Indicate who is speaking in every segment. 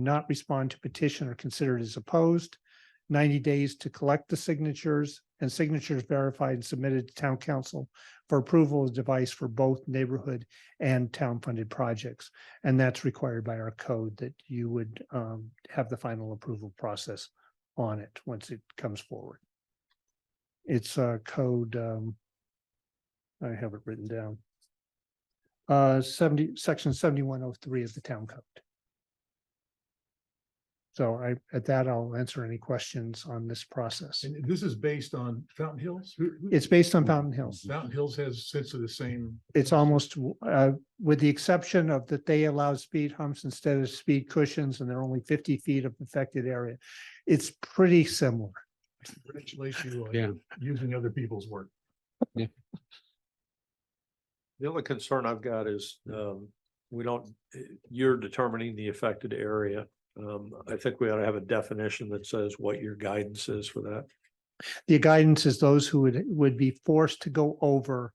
Speaker 1: not respond to petition are considered as opposed. Ninety days to collect the signatures and signatures verified and submitted to town council for approval of device for both neighborhood and town funded projects. And that's required by our code that you would um have the final approval process on it once it comes forward. It's uh code um. I have it written down. Uh seventy, section seventy-one oh three of the town code. So I, at that, I'll answer any questions on this process.
Speaker 2: And this is based on Fountain Hills? Who- who-
Speaker 1: It's based on Fountain Hills.
Speaker 2: Fountain Hills has sense of the same.
Speaker 1: It's almost, uh, with the exception of that they allow speed humps instead of speed cushions and they're only fifty feet of affected area. It's pretty similar.
Speaker 2: Congratulate you
Speaker 3: Yeah.
Speaker 2: on using other people's work.
Speaker 4: The only concern I've got is, um, we don't, eh, you're determining the affected area. Um, I think we ought to have a definition that says what your guidance is for that.
Speaker 1: The guidance is those who would, would be forced to go over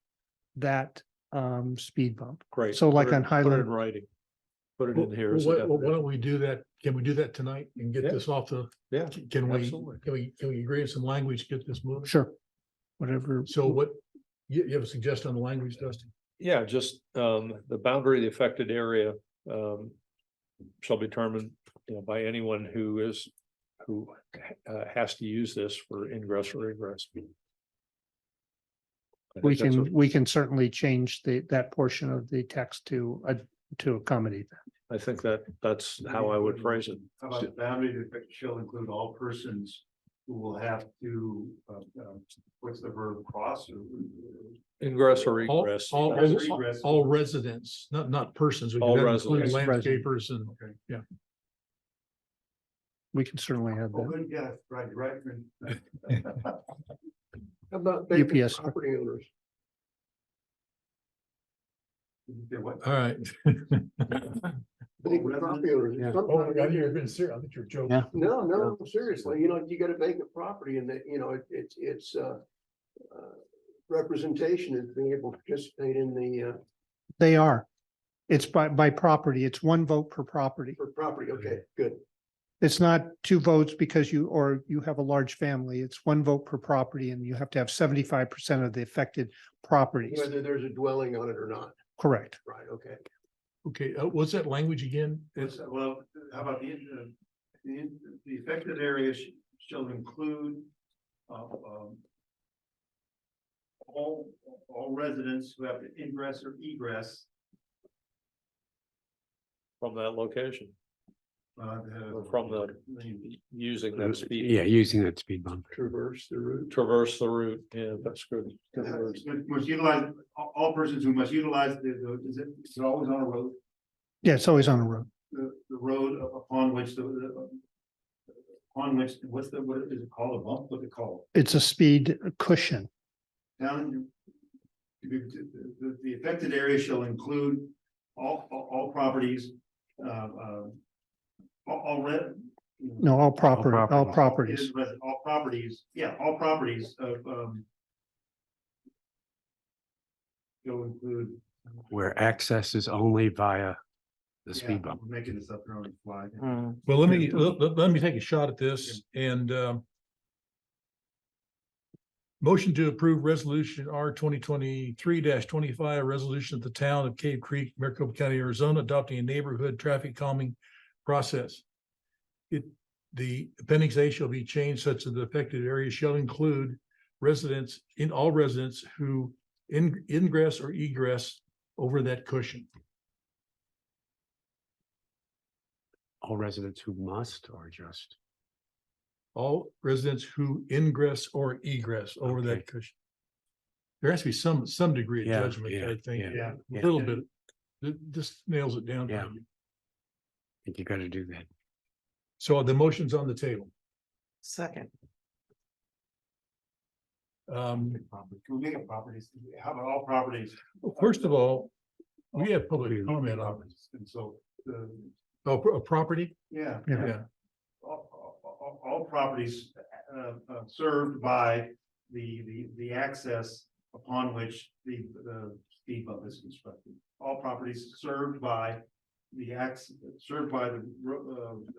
Speaker 1: that, um, speed bump.
Speaker 4: Great.
Speaker 1: So like
Speaker 4: Put it-
Speaker 1: on
Speaker 4: put it
Speaker 1: Highland-
Speaker 4: In writing. Put it
Speaker 2: Well,
Speaker 4: in here.
Speaker 2: well,
Speaker 4: as a
Speaker 2: Why well, why
Speaker 4: definition.
Speaker 2: don't we do that? Can we do that tonight and get
Speaker 4: Yeah.
Speaker 2: this off the,
Speaker 4: Yeah,
Speaker 2: can we,
Speaker 4: Absolutely.
Speaker 2: can we, can we agree on some language, get this moving?
Speaker 1: Sure. Whatever.
Speaker 2: So what, you, you have a suggestion on the language, Dustin?
Speaker 4: yeah, just, um, the boundary of the affected area, um, shall be determined, you know, by anyone who is, who, uh, has to use this for ingress or egress. I think
Speaker 1: We
Speaker 4: that's
Speaker 1: can,
Speaker 4: a-
Speaker 1: we can certainly change the, that portion of the text to, uh, to accommodate that.
Speaker 4: I think that, that's how I would phrase it.
Speaker 5: How about the boundary that shall include all persons who will have to, uh, um, what's the verb cross? or-
Speaker 4: Ingress or
Speaker 2: All,
Speaker 4: egress.
Speaker 2: all,
Speaker 5: That's
Speaker 2: res-
Speaker 5: regress.
Speaker 2: all residents, not, not persons. we could
Speaker 4: All
Speaker 2: have included
Speaker 1: residents.
Speaker 2: Landscapers and, yeah.
Speaker 1: We can certainly have
Speaker 5: Oh,
Speaker 1: that.
Speaker 5: good, yeah, right, right. right.
Speaker 1: UPS.
Speaker 5: You did what?
Speaker 2: All right.
Speaker 5: Oh, residents?
Speaker 3: Yeah.
Speaker 2: Oh, my God, you're being serious. I think you're joking.
Speaker 3: Yeah.
Speaker 6: No, no, seriously, you know, you got a vacant property and that, you know, it- it's, it's, uh, uh, representation is being able to participate in the, uh,
Speaker 1: They are. It's by, by property. It's one vote per property.
Speaker 6: for property. Okay, good.
Speaker 1: It's not two votes because you, or you have a large family. It's one vote per property and you have to have seventy-five percent of the affected properties.
Speaker 6: Whether there's a dwelling on it or not,
Speaker 1: Correct.
Speaker 6: right? Okay.
Speaker 2: Okay, uh, what's that language again?
Speaker 5: It's, well, how about the, uh, the, the affected area sh- shall include, uh, um. All, all residents who have to ingress or egress,
Speaker 4: From that location,
Speaker 5: uh, the-
Speaker 4: from the,
Speaker 5: the-
Speaker 4: using
Speaker 3: Uh,
Speaker 4: that speed,
Speaker 3: Yeah, using that speed bump.
Speaker 6: Traverse the route.
Speaker 4: traverse the route, yeah, that's good. Good words.
Speaker 5: Must utilize, all, all persons who must utilize the, the, is it, is it always on a road,
Speaker 1: Yeah, it's always on a road.
Speaker 5: the, the road upon which the, the. Upon which, what's the, what is it called, a bump, what's it called?
Speaker 1: It's a speed cushion.
Speaker 5: Down. The, the- the affected area shall include all, all, all properties, uh, uh. All, all re-
Speaker 1: No, all property, all
Speaker 3: properties.
Speaker 1: properties.
Speaker 5: All properties, yeah, all properties of, um. Shall include.
Speaker 3: Where access is only via the
Speaker 5: Yeah,
Speaker 3: speed bump.
Speaker 5: we're Making this up here on the fly.
Speaker 2: Well, let me, let, let- let me take a shot at this and, um. Motion to approve resolution R twenty twenty-three twenty-five, a resolution of the town of Cave Creek, Maricopa County, Arizona, adopting a neighborhood traffic calming process. It, the appendix A shall be changed such that the affected area shall include residents in all residents who in, ingress or egress over that cushion.
Speaker 3: All residents who must or just,
Speaker 2: All residents who ingress or egress over
Speaker 3: Okay.
Speaker 2: that cushion. There has to be some, some degree
Speaker 3: Yeah,
Speaker 2: of judgment,
Speaker 3: yeah,
Speaker 2: I think, a
Speaker 3: yeah, yeah.
Speaker 2: little bit. Th- This nails it down. for
Speaker 3: Yeah.
Speaker 2: me.
Speaker 3: I think you gotta do that.
Speaker 2: So the motion's on the table.
Speaker 7: Second,
Speaker 2: Um,
Speaker 5: Property- Can we make it properties? How about all properties?
Speaker 2: first of all, we have public
Speaker 3: Really?
Speaker 2: comment on,
Speaker 5: And so, the,
Speaker 2: oh, pro- property?
Speaker 5: yeah.
Speaker 1: Yeah.
Speaker 2: Yeah,
Speaker 5: All, all- all, all properties, uh, uh, served by the, the, the access upon which the, the speed bump is constructed. All properties served by the acts, served by the, ro- uh,